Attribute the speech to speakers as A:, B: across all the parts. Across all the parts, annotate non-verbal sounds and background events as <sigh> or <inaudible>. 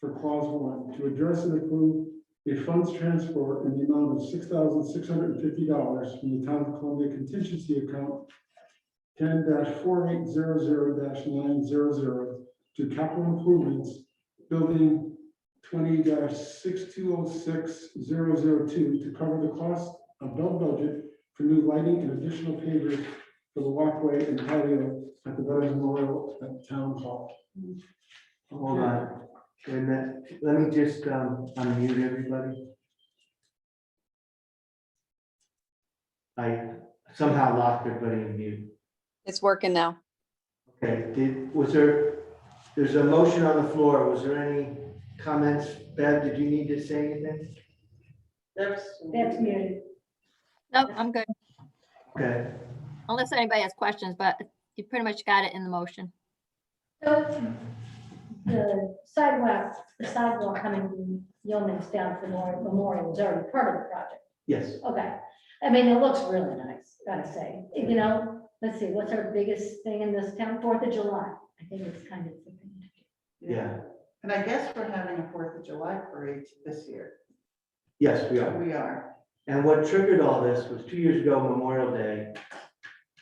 A: for clause one, to address and approve a funds transfer in the amount of six thousand six hundred and fifty dollars from the town of Columbia contingency account ten four eight zero zero nine zero zero to capital improvements, building twenty six two oh six zero zero two to cover the cost above budget for new lighting and additional pavers for the walkway and patio at the Veterans Memorial at Town Hall.
B: Hold on, wait a minute, let me just um, unmute everybody. I somehow locked everybody in mute.
C: It's working now.
B: Okay, did, was there, there's a motion on the floor, was there any comments? Bev, did you need to say anything?
D: That's muted.
E: No, I'm good,
B: Okay,
E: unless anybody has questions, but you pretty much got it in the motion.
D: So the sidewalk, the sidewalk coming Yeoman's down from Memorial- Memorial is already part of the project.
B: yes,
D: Okay. I mean, it looks really nice, gotta say. You know, let's see, what's our biggest thing in this town? Fourth of July. I think it's kind of the thing.
B: yeah,
F: And I guess we're having a Fourth of July parade this year.
B: yes, we are.
F: We are.
B: And what triggered all this was two years ago, Memorial Day.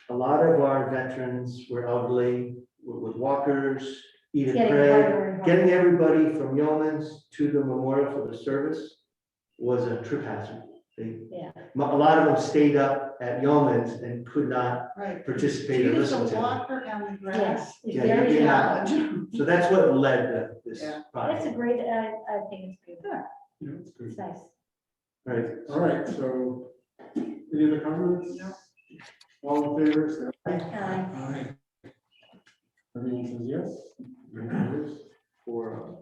B: A lot of our veterans were elderly, were with walkers, eat
D: It's
B: and
D: getting
B: pray.
D: harder and harder.
B: Getting everybody from Yeoman's to the memorial for the service was a trip hazard. They,
D: Yeah.
B: a lot of them stayed up at Yeoman's and could not
F: Right.
B: participate or
F: Use
B: listen
F: the
B: to it.
F: walker and the grass.
D: Yes, it's
B: Yeah, you're
D: very
B: getting out.
D: hard.
F: Knowledge.
B: So that's what led to this
F: Yeah.
D: That's a
B: project,
D: great, I, I think it's good.
A: Yeah, that's good.
D: It's nice.
B: right?
A: All right, so any other comments?
F: No.
A: All in favor, say aye.
D: Um,
A: Aye. Everyone says yes? Everyone votes For, uh,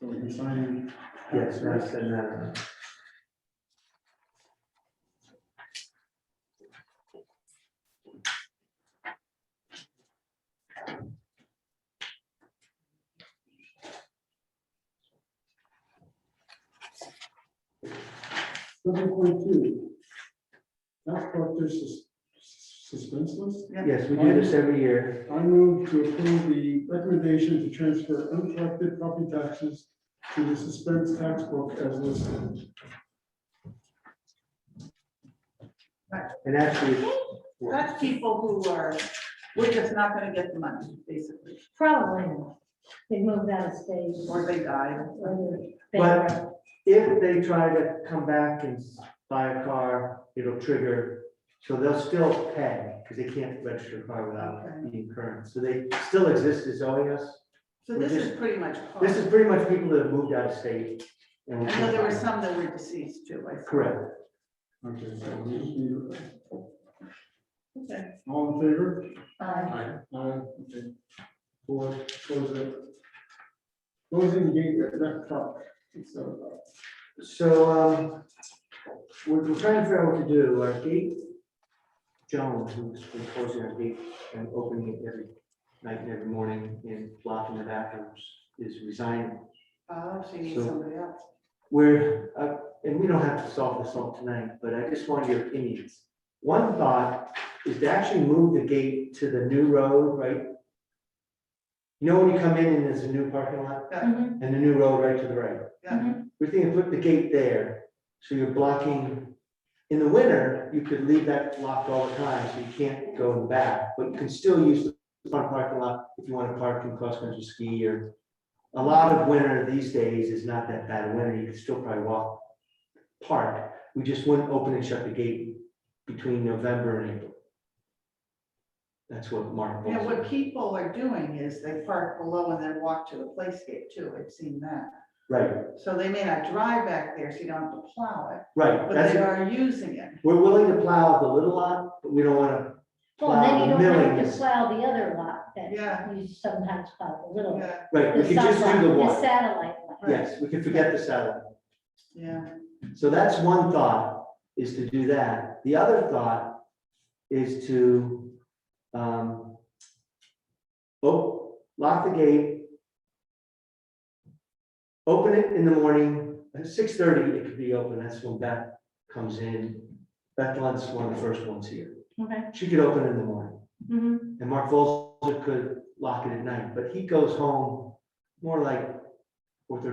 A: so we can sign.
B: Yes, and I said that.
A: Seven point two. Tax collector's sus- suspense list.
B: Yes, we do this every year.
A: I move to approve the recommendation to transfer uncollected property taxes to the suspense tax book as listed.
B: And actually,
F: <laughs> That's people who are, we're just not gonna get the money, basically,
D: Probably not. They moved out of state.
F: or they die.
D: or they're
B: But-
D: bankrupt.
B: if they try to come back and s- buy a car, it'll trigger. So they'll still pay because they can't register a car without being current. So they still exist as owing us.
F: So this is pretty much.
B: This is pretty much people that have moved out of state. and we
F: I know there were some that were deceased too, I. saw.
B: Correct.
A: Okay, so we just need a-
F: Okay.
A: all in favor?
F: Oh,
D: Um,
A: Aye. Aye, okay. Four, close it. Closing gate at that truck. So,
B: So um, we're we're trying to figure out what to do. Our gate, Joan, who's been closing our gate and opening it every night and every morning and blocking the bathrooms, is resigning.
F: Oh, so you need
B: So-
F: somebody else.
B: We're, uh, and we don't have to solve this all tonight, but I just want your opinions. One thought is to actually move the gate to the new road, right? You know, when you come in and there's a new parking lot
D: mhm,
B: and the new road right to the right?
F: Yeah.
B: We're thinking put the gate there, so you're blocking, in the winter, you could leave that locked all the time, so you can't go in the back, but you can still use the front parking lot if you want to park and cross-country ski or. A lot of winter these days is not that bad a winter, you can still probably walk, park, we just wouldn't open and shut the gate between November and April. That's what Mark.
F: Yeah,
B: Bolton-
F: what people are doing is they park below and then walk to the playscape too, I've seen that.
B: Right,
F: So they may not drive back there, so you don't have to plow it,
B: right,
F: but
B: that's,
F: they
B: it.
F: are using it.
B: we're willing to plow the little lot, but we don't want to
D: Well, then you
B: Plow
D: don't have
B: millions.
D: to plow the other lot that
F: Yeah.
D: you sometimes plow the little.
F: Yeah,
B: Right, we
D: The
B: could just do the
D: satellite- the
B: one,
D: satellite lot.
B: yes, we could forget the satellite.
F: yeah.
B: So that's one thought, is to do that. The other thought is to, um, oh, lock the gate. Open it in the morning, at six thirty, it could be open, that's when Beth comes in. Beth Lund's one of the first ones here.
D: Okay.
B: She could open in the morning.
D: mhm.
B: And Mark Volzer could lock it at night, but he goes home more like four thirty.